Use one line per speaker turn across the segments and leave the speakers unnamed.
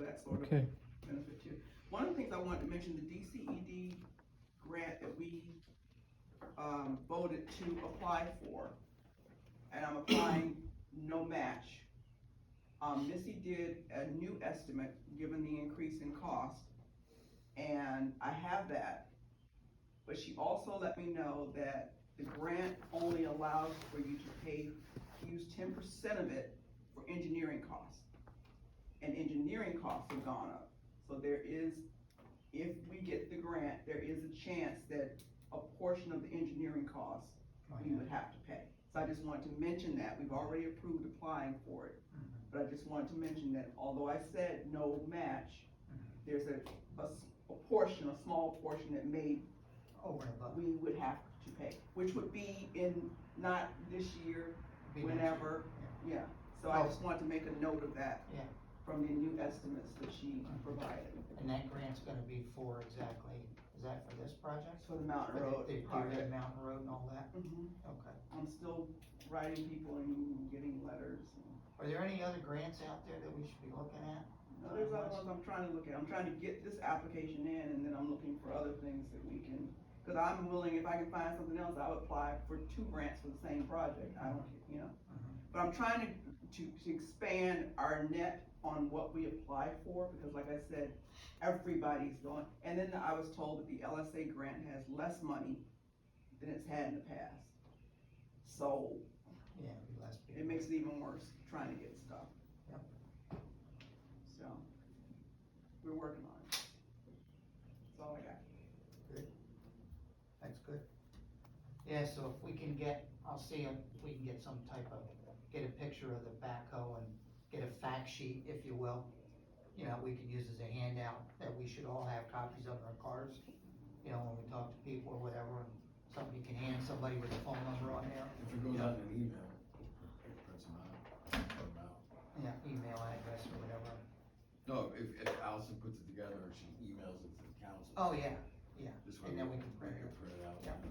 that sort of
Okay,
benefit too. One of the things I wanted to mention, the DCED grant that we, um, voted to apply for, and I'm applying no match. Um, Missy did a new estimate, given the increase in cost, and I have that. But she also let me know that the grant only allows for you to pay, use ten percent of it for engineering costs. And engineering costs have gone up. So there is, if we get the grant, there is a chance that a portion of the engineering costs we would have to pay. So I just wanted to mention that, we've already approved applying for it. But I just wanted to mention that although I said no match, there's a, a s- a portion, a small portion that may,
Over and Oh, above.
we would have to pay, which would be in, not this year, whenever, yeah. So I just wanted to make a note of that.
Yeah.
From the new estimates that she provided
And that grant's gonna be for exactly, is that for this project?
for the Mountain
For the-
Road
the- the
project.
Red Mountain Road and all that?
Mhm.
Okay.
I'm still writing people and getting letters.
Are there any other grants out there that we should be looking at?
No, There's other ones I'm trying to look at, I'm trying to get this application in, and then I'm looking for other things that we can, cause I'm willing, if I can find something else, I would apply for two grants for the same project, I don't, you know.
Mm-hmm.
But I'm trying to, to, to expand our net on what we apply for, because like I said, everybody's going, and then I was told that the LSA grant has less money than it's had in the past. So,
Yeah, it'd be less. people.
it makes it even worse trying to get stuff.
Yep.
So, we're working on it. That's all I got.
That's good. Yeah, so if we can get, I'll see if we can get some type of, get a picture of the backhoe and get a fact sheet, if you will. You know, we can use as a handout that we should all have copies of in our cars, you know, when we talk to people or whatever. and Somebody can hand somebody with a phone number on there,
If it goes out in an email, it prints them out, print 'em out.
you know, email address or whatever.
No, if, if Allison puts it together and she emails it to the council.
Oh, yeah,
This way
and then we can
we
print
can
it.
print it out
Yep.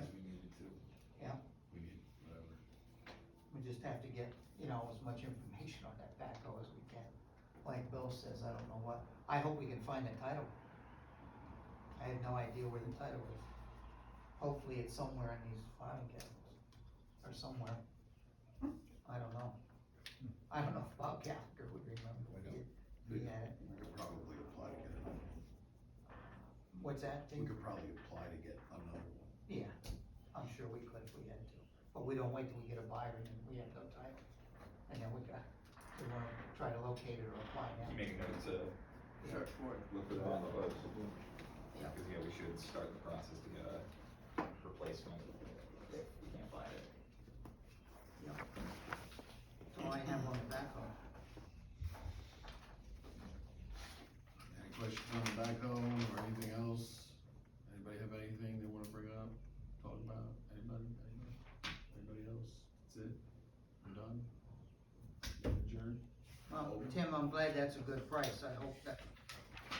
as we need it to.
Yep.
We need whatever.
We just have to get, you know, as much information on that backhoe as we can. Like Bill says, I don't know what, I hope we can find the title. I have no idea where the title is. Hopefully it's somewhere in these filing cabinets, or somewhere. I don't know. I don't know if Bob Gallagher would remember
I
if
don't.
he, he had it.
We could probably apply to get, another one.
What's that?
we could probably apply to get another one.
Yeah, I'm sure we could if we had to, but we don't wait till we get a buyer and then we have no title. And then we got, we wanna try to locate it or apply now.
You make a note to
Search for it.
look for that on the books.
Yeah.
Cause yeah, we should start the process to get a replacement if we can't find it.
So I have on the backhoe.
Any questions on the backhoe or anything else? Anybody have anything they wanna bring up, talk about? Anybody, anybody, anybody else? That's it? We're done? Adjourned?
Oh.
Well, Tim, I'm glad that's a good price, I hope that,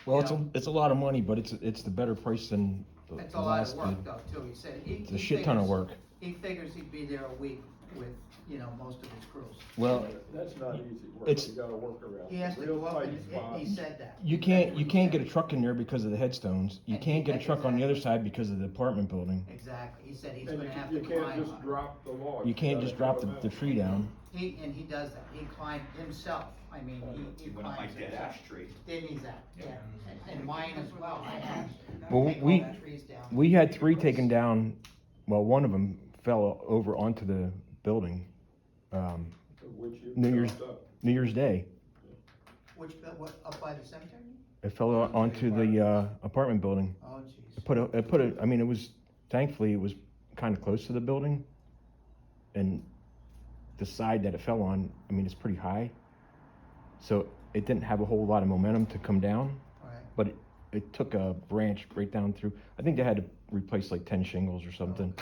well, it's a, it's a lot of money, but it's, it's the better price than the
that's
the
a lot of
last,
work
bid.
though, too, he said. he-
it's
he
a shit ton of
figures-
work.
He figures he'd be there a week with, you know, most of his crews.
Well,
That's not easy work,
It's-
you gotta work around.
He has to
real
go up
tight
and, and he
spots.
said that.
you can't, you can't get a truck in there because of the headstones, you
And
can't get a
that's
truck on the other side because of the apartment building.
Exactly, he said he's
And
gonna
you,
have
you
to
can't
climb
just
on
drop the log.
You can't
gotta
just drop
have
the,
them out.
the tree down.
it. He, and he does that, he climbed himself, I mean, he, he
He went up
climbs
like dead
himself.
ash tree.
Didn't he, Zach?
Yeah.
Yeah, And- and mine as well, I had to
Well,
take all
we-
the trees down.
We had three taken down, well, one of them fell over onto the building, um,
Which you
New Year's-
chopped up.
New Year's Day.
Which, built- what, up by the cemetery?
It fell o- onto the, uh, apartment building.
Oh, jeez.
It put a, it put a, I mean, it was, thankfully, it was kind of close to the building. And the side that it fell on, I mean, it's pretty high. So it didn't have a whole lot of momentum to come down.
All right.
It took a branch right down through, I think they had to replace like ten shingles or something.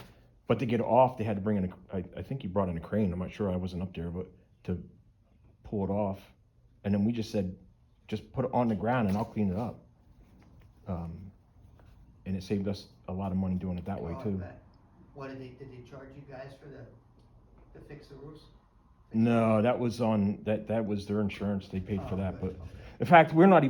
But to get it off, they had to bring in a, I, I think he brought in a crane, I'm not sure, I wasn't up there, but to pull it off. And then we just said, just put it on the ground and I'll clean it up. Um, and it saved us a lot of money doing it that way
Oh, I
too.
bet. What did they, did they charge you guys for the, to fix the roofs?
No, that was on, that, that was their insurance, they paid for
Oh,
that,
good.
but,
Okay.
in fact, we're not even